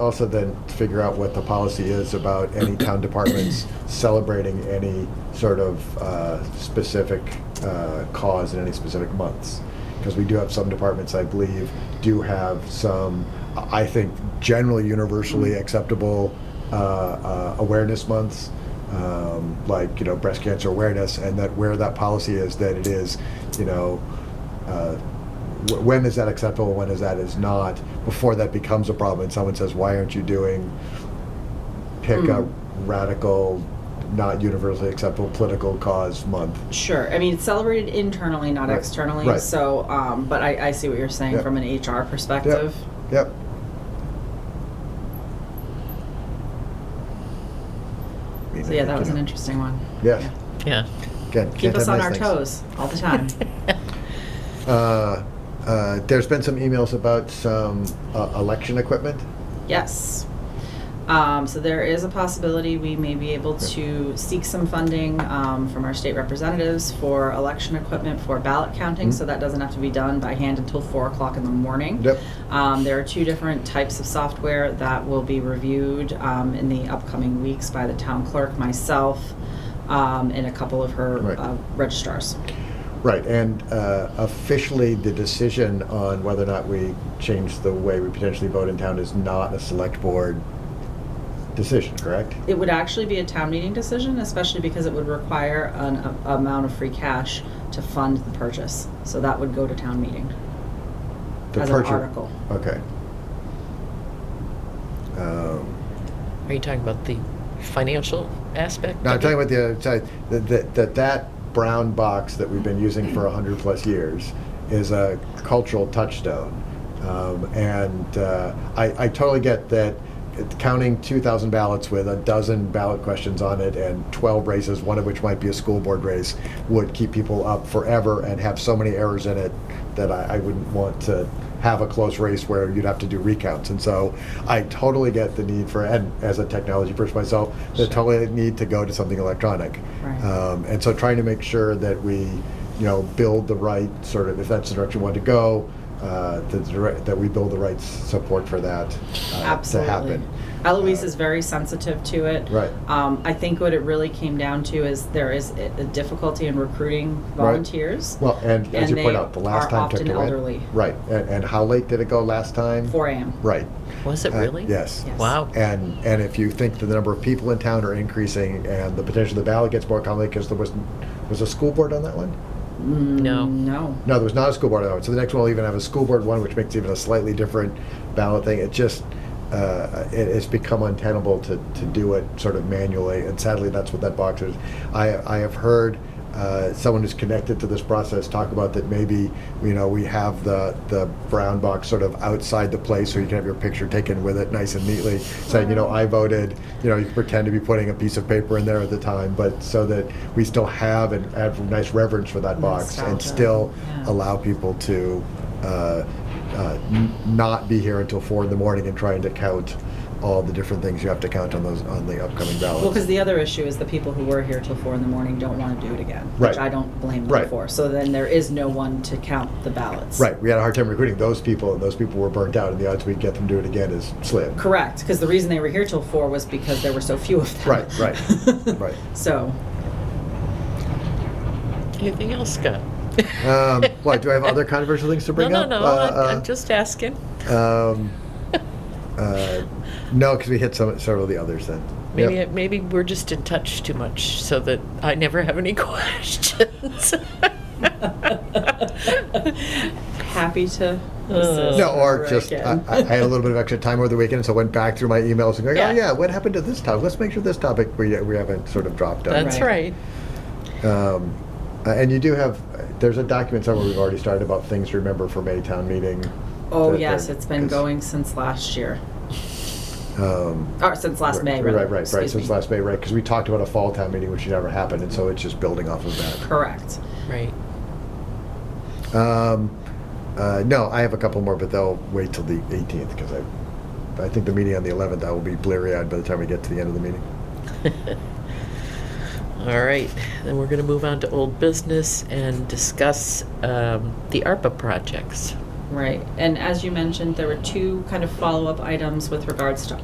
Also then figure out what the policy is about any town departments celebrating any sort of uh, specific uh, cause in any specific months. Because we do have some departments, I believe, do have some, I think, generally universally acceptable uh, uh, awareness months um, like you know breast cancer awareness, and that where that policy is that it is, you know, uh, wh- when is that acceptable, when is that is not. Before that becomes a problem, and someone says, "Why aren't you doing?" Pick a Mm. radical, not universally acceptable political cause month. Sure. I mean, it's celebrated internally, not Right. externally. Right. So, um, but I, I see what you're saying Yep. from an HR perspective. Yep. So yeah, that was an interesting one. Yes. Yeah. Yeah. Again, Keep can't us have on nice our things. toes all the time. Uh, uh, there's been some emails about some uh, election equipment. yes. Um, so there is a possibility we may be able to seek some funding um, from our state representatives for election equipment for ballot counting. Mhm. So that doesn't have to be done by hand until four o'clock in the morning. Yep. Um, there are two different types of software that will be reviewed um, in the upcoming weeks by the town clerk, myself, um, and a couple of her Right. uh, registrars. Right, and uh, officially, the decision on whether or not we change the way we potentially vote in town is not a select board decision, correct? It would actually be a town meeting decision, especially because it would require an a- amount of free cash to fund the purchase. So that would go to town meeting The as an purchase- article. Okay. Um, Are you talking about the financial aspect? No, I'm of talking it? about the other side, that, that, that that brown box that we've been using for 100 plus years is a cultural touchstone. Um, and uh, I, I totally get that it- counting 2,000 ballots with a dozen ballot questions on it and 12 races, one of which might be a school board race, would keep people up forever and have so many errors in it that I, I wouldn't want to have a close race where you'd have to do recounts. And so I totally get the need for, and as a technology person myself, the totally need to go to something electronic. Right. Um, and so trying to make sure that we, you know, build the right sort of, if that's the direction we want to go, uh, the direct, that we build the right s- support for that uh, to Absolutely. happen. Eloise Uh, is very sensitive to it. Right. Um, I think what it really came down to is there is a a difficulty in recruiting volunteers. Well, and as And you they point out, the last are time took often the win. elderly. Right, and, and how late did it go last time? Four AM. Right. Was it Uh, really? yes. Yes. Wow. And, and if you think that the number of people in town are increasing and the potential the ballot gets more complicated, because there was, was a school board on that one? Mm, No. No. No, there was not a school board on that one. So the next one will even have a school board one, which makes even a slightly different ballot thing. It just, uh, it, it's become untenable to, to do it sort of manually, and sadly, that's what that box is. I, I have heard uh, someone who's connected to this process talk about that maybe, you know, we have the, the brown box sort of outside the place, so you can have your picture taken with it nice and neatly, saying, you know, I voted, you know, you can pretend to be putting a piece of paper in there at the time, but so that we still have and have nice reverence for that box and Nostalgia. still Yeah. allow people to uh, uh, n- not be here until four in the morning and trying to count all the different things you have to count on those, on the upcoming Well, because ballots. the other issue is the people who were here till four in the morning don't want to do it again, Right. which I don't blame them Right. for. So then there is no one to count the ballots. Right, we had a hard time recruiting those people, and those people were burnt out, and the odds we'd get them to do it again is slim. Correct, because the reason they were here till four was because there were so few of them. Right, right, right. So, Anything else, Scott? Um, What, do I have other controversial things to No, bring no, up? no. Uh, I'm, uh, I'm just asking. um, uh, No, because we hit some, several of the others then. Maybe Yep. maybe we're just in touch too much, so that I never have any questions. happy to assist. No, or wherever I just, I, can. I I had a little bit of extra time over the weekend, so I went back through my emails and going, oh Yeah. yeah, what happened to this topic? Let's make sure this topic, we, we haven't sort of dropped on. That's Right. right. Um, uh, And you do have, there's a document somewhere we've already started about things to remember for Maytown meeting. Oh, that- yes, that- it's been 'cause, going since last year, um, or since last May, Right, rather. right, right, right, Excuse since me. last May, right, because we talked about a fall town meeting, which never happened, and so it's just building off of that. Correct. Right. Um, uh, no, I have a couple more, but they'll wait till the 18th because I, I think the meeting on the 11th. I will be bleary-eyed by the time we get to the end of the meeting. All right, then we're going to move on to old business and discuss um, the ARPA projects. Right, and as you mentioned, there were two kind of follow-up items with regards to